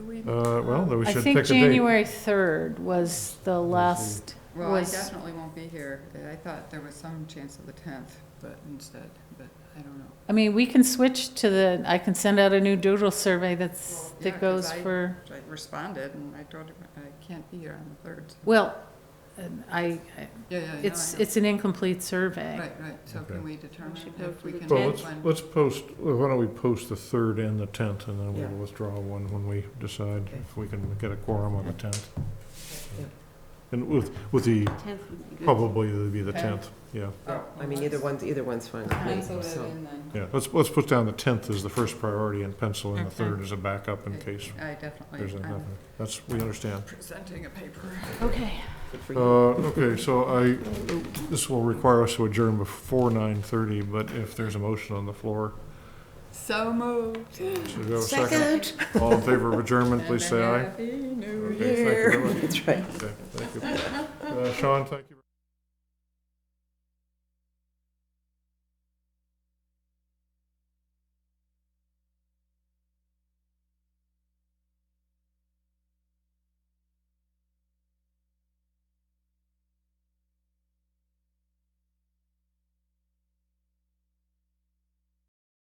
Uh, well, then we I should think pick a date. January 3rd was the last, Well, I was- definitely won't be here. I thought there was some chance of the tenth, but instead, but I don't know. I mean, we can switch to the, I can send out a new doodle survey that's, Well, yeah, that 'cause goes I- for, I responded and I told him I can't be here on the third. so- well, and I, I- Yeah, yeah, yeah. I it's, know. it's an incomplete survey. Right, right. So Okay. can we determine should go if for we the can Well, make let's, one? let's post, why don't we post the third and the tenth, and then Yeah. we'll withdraw one when we decide Okay. if we can get a quorum on the tenth. Yeah. And with, with the, Tenth would be good. probably it'd be the Okay. tenth, yeah, Oh, I mean, either one's, either one's fine with me, Pencil it so. in then. yeah. Let's, let's put down the tenth as the first priority and pencil in the Okay. third as a backup in Okay. case I there's definitely, anything. I'm That's, we understand. presenting a paper. Okay. Good for you. Uh, okay, so I, this will require us to adjourn before nine thirty, but if there's a motion on the floor, So moved. should we have a second? All in favor of adjournment, please say aye. Happy New Okay, thank you very Year. much. That's right. Okay, thank you. Uh, Sean, thank you.